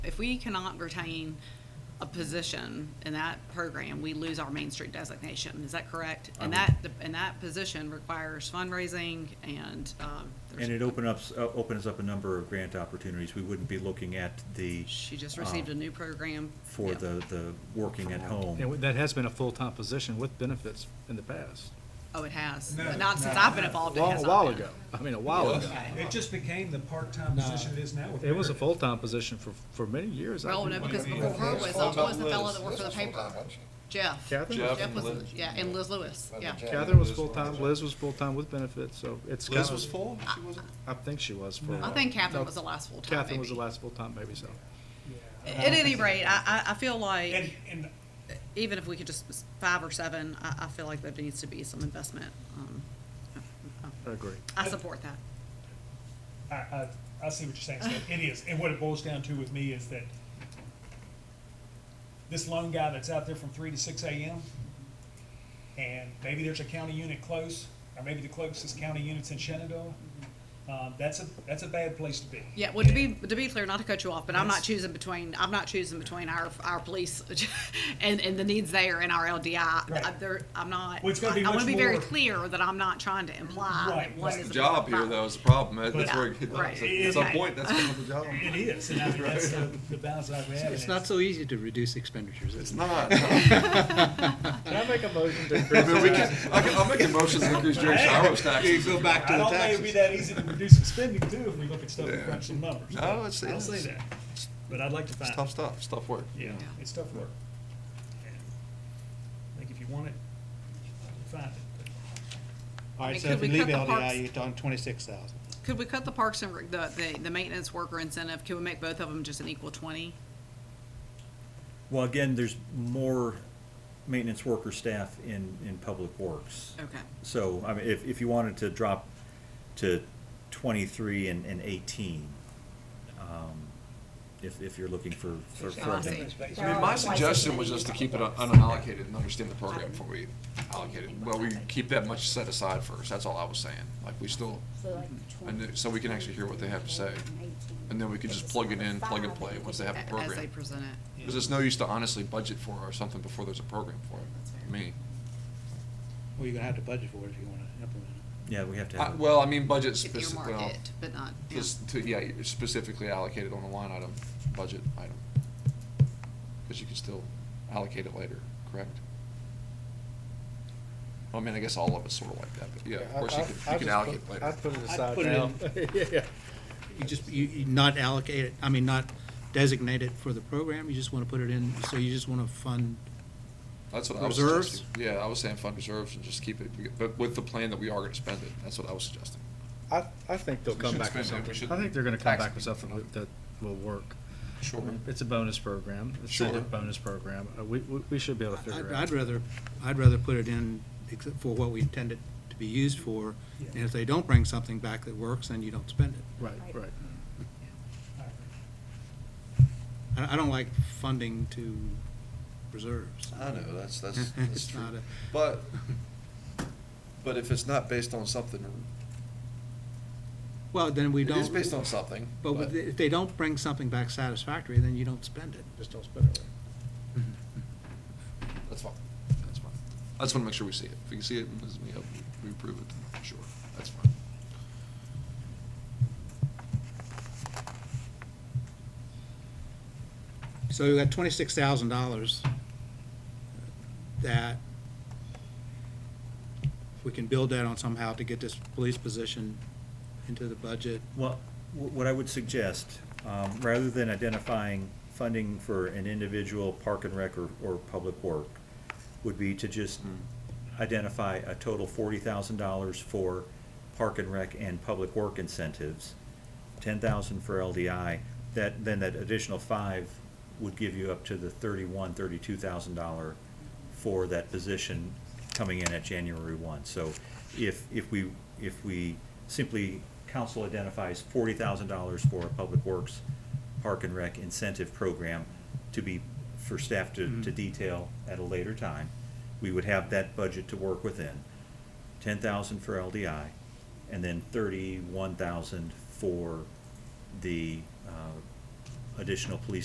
If we cannot retain a position in that program, we lose our Main Street designation. Is that correct? And I that, and that position requires fundraising and, um. there's- And it open ups, uh, opens up a number of grant opportunities. We wouldn't be looking at the, She just received uh, a new program. for Yeah. the, the working at home. And that has been a full-time position with benefits in the past, Oh, it has. No, But not no, since I've been a no. involved. it while, has a not while been. ago. I mean, a while ago. It just became the part-time position it is now. with It was a Barrett. full-time position for, for many years. I Well, no, think. because Yeah. before her was, Full-time was the Liz. fellow that worked for the Liz was paper, full-time, wasn't she? Jeff. Catherine? Jeff and was, Liz. yeah, and Liz Lewis, Wasn't yeah. Jack? Catherine was Liz full-time, Liz was full-time with benefits, so it's. Liz kinda- was full? She wasn't? I think she was for. a I while. think Catherine No, was the last full-time, Catherine was the maybe. last full-time, maybe so. Yeah. At any rate, I, I, I feel like. And, and even if we could just, five or seven, I, I feel like there needs to be some investment. um, I agree. I support that. I, I, I see what you're saying, Steve. It is, and what it boils down to with me is that this lone guy that's out there from three to six AM, and maybe there's a county unit close, or maybe the closest county unit's in Shenandoah, um, that's a, that's a bad place to be. Yeah, well, to be, to be clear, not to cut you off, but I'm not That's- choosing between, I'm not choosing between our, our police and, and the needs there and our LDI. I- Right. There, I'm not, I Well, it's gonna be want to much be very more- clear that I'm not trying to imply Right, that one right. is. It's The a job here, though, is the problem. That- That's Yeah, where, it- right. at some Okay. point, that's kind of the Oh. job. It is, and I mean, that's the, the balance that we have. It's not so easy to reduce expenditures. It's is it? not. Can I make a motion to I increase? mean, we can, I can, I'll make a motion to increase Jerry's hours taxes. You go back to I the don't think it'd be taxes. that easy to reduce some spending too, if we look at stuff and Yeah. crunch some numbers. No, it's- I'll it's- say that, but I'd like to It's find. tough stuff, it's tough work. Yeah, it's tough work. And I think if you want it, you find it. All I mean, right, so could if you we leave cut the parks- LDI, you're talking twenty-six thousand. Could we cut the parks and, rec- the, the, the maintenance worker incentive, can we make both of them just an equal twenty? Well, again, there's more maintenance worker staff in, in public works. Okay, So, I mean, if, if you wanted to drop to twenty-three and, and eighteen, um, if, if you're looking for, for. for a I see. maintenance- I mean, my suggestion was just to keep it un- unallocated and understand the program before we allocate it. Well, we keep that much set aside first, that's all I was saying. Like, we still, Mhm. and then- so we can actually hear what they have to say. And then we can just plug it in, plug and play, once they have a A- as they program. present it. Because it's no use to honestly budget for or something before there's a program for it, me. Well, you're gonna have to budget for it if you wanna implement it. Yeah, we have to I- have. a- Well, I mean, budget If you specifically, earmark it, but not. yeah. just to, yeah, specifically allocated on a line item, budget item. Because you can still allocate it later, correct? I mean, I guess all of it's sort of like that, but yeah, of course you can, you can allocate later. I'd put it I'd aside put it now. Yeah, yeah. You just, you, you not allocate it, I mean, not designate it for the program, you just wanna put it in, so you just wanna fund, That's what I was Reserves? suggesting. Yeah, I was saying fund reserves and just keep it, but with the plan that we are gonna spend it, that's what I was suggesting. I, I think they'll We come should back with spend it. something. We should I think they're gonna come tax back with people. something that- that will work. Sure. It's a bonus program, it's a Sure. bonus program. Uh, We, we we should be able to figure I'd, it out. I'd rather, I'd rather put it in except for what we intend it to be used for. And if they don't bring something back that works, then you don't spend it. Right, right. All right. I, I don't like funding to reserves. I know, that's, that's, that's It's true. not a- But, but if it's not based on something, Well, then we it don't. is based on something. But with- if they don't bring something back satisfactory, then you don't spend it. Just don't spend it. That's fine. That's fine. I just want to make sure we see it. If we can see it, and as we hope we approve it, then sure, that's fine. So you got twenty-six thousand dollars uh, that we can build that on somehow to get this police position into the budget. Well, wh- what I would suggest, um, rather than identifying funding for an individual park and rec or, or public work, would be to just identify a total forty thousand dollars for park and rec and public work incentives, ten thousand for LDI, that, then that additional five would give you up to the thirty-one, thirty-two thousand dollar for that position coming in at January one. So if, if we, if we simply, council identifies forty thousand dollars for a public works park and rec incentive program to be, for staff to, to detail at a later time, we would have that budget to work within. Ten thousand for LDI, and then thirty-one thousand for the, uh, additional police